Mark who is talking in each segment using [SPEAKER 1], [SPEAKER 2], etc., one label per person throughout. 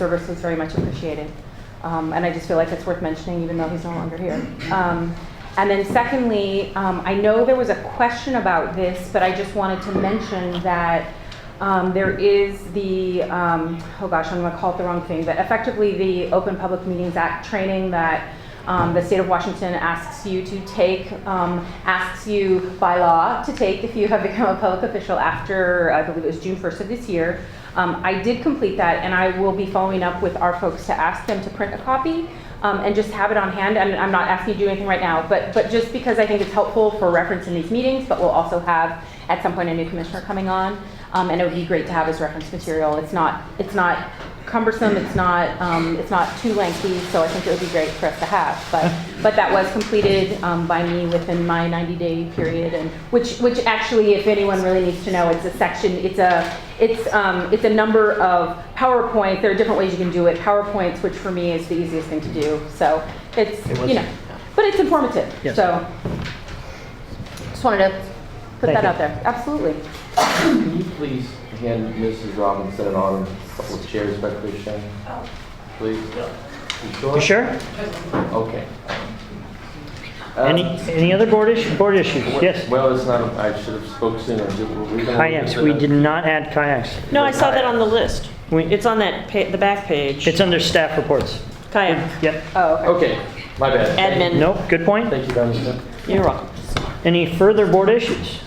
[SPEAKER 1] service was very much appreciated. Um, and I just feel like it's worth mentioning, even though he's no longer here. Um, and then, secondly, um, I know there was a question about this, but I just wanted to mention that um, there is the, um, oh gosh, I'm going to call it the wrong thing, but effectively the Open Public Meetings Act training that um, the state of Washington asks you to take, um, asks you by law to take if you have become a public official after, I believe it was June 1st of this year. Um, I did complete that, and I will be following up with our folks to ask them to print a copy um, and just have it on hand. And I'm not asking you to do anything right now, but, but just because I think it's helpful for reference in these meetings, but we'll also have at some point a new commissioner coming on, um, and it would be great to have as reference material. It's not, it's not cumbersome, it's not, um, it's not too lengthy, so I think it would be great for us to have. But, but that was completed, um, by me within my 90-day period, and, which, which actually, if anyone really needs to know, it's a section, it's a, it's, um, it's a number of PowerPoint, there are different ways you can do it. PowerPoints, which for me is the easiest thing to do, so it's,
[SPEAKER 2] It was-
[SPEAKER 1] you know, but it's informative,
[SPEAKER 2] Yes.
[SPEAKER 1] so. Just wanted to put
[SPEAKER 2] Thank
[SPEAKER 1] that
[SPEAKER 2] you.
[SPEAKER 1] out there, absolutely.
[SPEAKER 3] Can you please hand Mrs. Robinson an arm, a couple of chairs back there, Shannon? Please? You
[SPEAKER 2] You
[SPEAKER 3] sure?
[SPEAKER 2] sure?
[SPEAKER 3] Okay. Uh,
[SPEAKER 2] Any, any other board issue, board issues?
[SPEAKER 3] wh-
[SPEAKER 2] Yes.
[SPEAKER 3] Well, it's not, I should have spoke sooner. Did- were we gonna-
[SPEAKER 2] Kayaks, we did not add kayaks.
[SPEAKER 4] No, I saw that on the list.
[SPEAKER 2] We-
[SPEAKER 4] It's on that, pa- the back page.
[SPEAKER 2] It's under staff reports.
[SPEAKER 4] Kayak.
[SPEAKER 2] Yep,
[SPEAKER 1] Oh, okay.
[SPEAKER 3] Okay, my bad. Thank-
[SPEAKER 4] Admin.
[SPEAKER 2] nope, good point.
[SPEAKER 3] Thank you, Robinson.
[SPEAKER 4] You're welcome.
[SPEAKER 2] Any further board issues?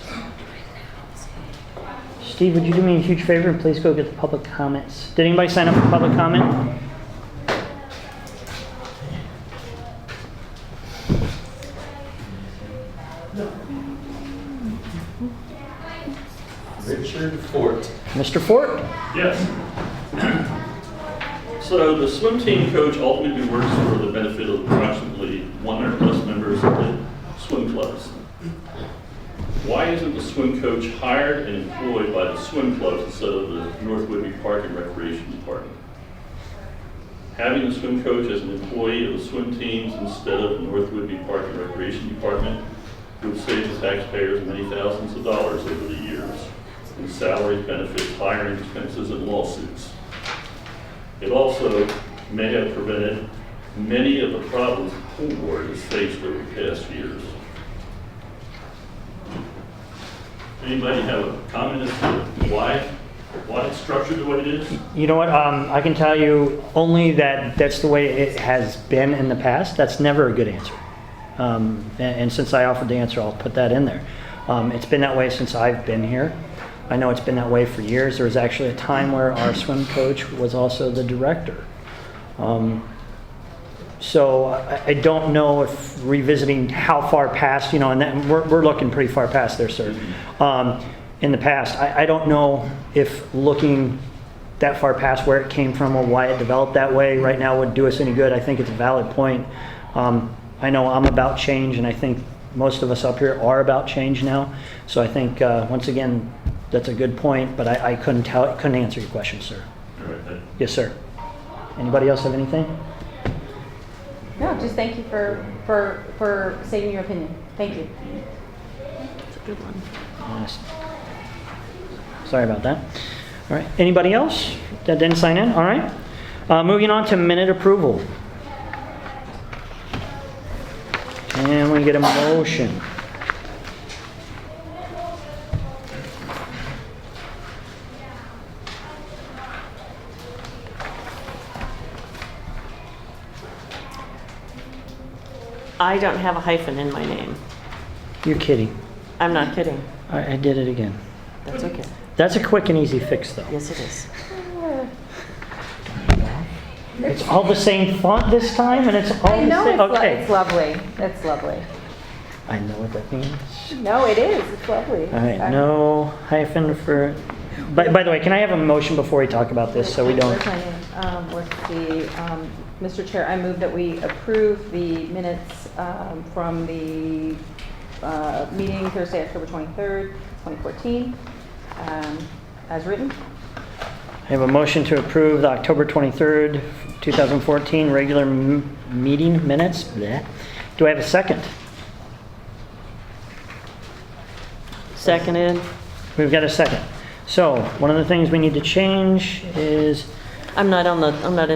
[SPEAKER 2] Steve, would you do me a huge favor and please go get the public comments? Did anybody sign up for public comment?
[SPEAKER 5] Richard Fort.
[SPEAKER 2] Mr. Fort?
[SPEAKER 6] Yes. So the swim team coach ultimately works for the benefit of approximately 100 plus members of the swim clubs. Why isn't the swim coach hired and employed by the swim clubs instead of the North Whitby Park and Recreation Department? Having the swim coach as an employee of the swim teams instead of the North Whitby Park and Recreation Department would save the taxpayers many thousands of dollars over the years in salaries, benefits, hiring expenses, and lawsuits. It also may have prevented many of the problems the pool board has faced over the past years. Anybody have a comment as to why, why it's structured the way it is?
[SPEAKER 2] You know what, um, I can tell you only that that's the way it has been in the past. That's never a good answer. Um, and, and since I offered the answer, I'll put that in there. Um, it's been that way since I've been here. I know it's been that way for years. There was actually a time where our swim coach was also the director. Um, so uh, I, I don't know if revisiting how far past, you know, and that, we're, we're looking pretty far past there, sir. Um, in the past, I, I don't know if looking that far past where it came from or why it developed that way right now would do us any good. I think it's a valid point. Um, I know I'm about change, and I think most of us up here are about change now. So I think, uh, once again, that's a good point, but I, I couldn't tell, couldn't answer your question, sir.
[SPEAKER 6] All right, that-
[SPEAKER 2] Yes, sir. Anybody else have anything?
[SPEAKER 1] No, just thank you for, for, for stating your opinion. Thank you.
[SPEAKER 2] Yes. Sorry about that. All right, anybody else that didn't sign in? All right. Uh, Moving on to minute approval. And we get a motion.
[SPEAKER 4] I don't have a hyphen in my name.
[SPEAKER 2] You're kidding.
[SPEAKER 4] I'm not kidding.
[SPEAKER 2] I I did it again.
[SPEAKER 4] That's okay.
[SPEAKER 2] That's a quick and easy fix, though.
[SPEAKER 4] Yes, it is.
[SPEAKER 2] It's all the same font this time, and it's all
[SPEAKER 1] I
[SPEAKER 2] the
[SPEAKER 1] know, it's,
[SPEAKER 2] same,
[SPEAKER 1] lo-
[SPEAKER 2] okay.
[SPEAKER 1] it's lovely. It's lovely.
[SPEAKER 2] I know what that means.
[SPEAKER 1] No, it is. It's lovely.
[SPEAKER 2] All right, no hyphen for, by, by the way, can I have a motion before we talk about this, so we don't?
[SPEAKER 1] Where's my name? Um, what's the, um, Mr. Chair, I move that we approve the minutes, um, from the, uh, meeting Thursday, October twenty-third, twenty fourteen, um, as written.
[SPEAKER 2] I have a motion to approve the October 23rd, 2014 regular m- meeting minutes. Bleh. Do I have a second?
[SPEAKER 4] Seconded.
[SPEAKER 2] We've got a second. So, one of the things we need to change is
[SPEAKER 4] I'm not on the, I'm not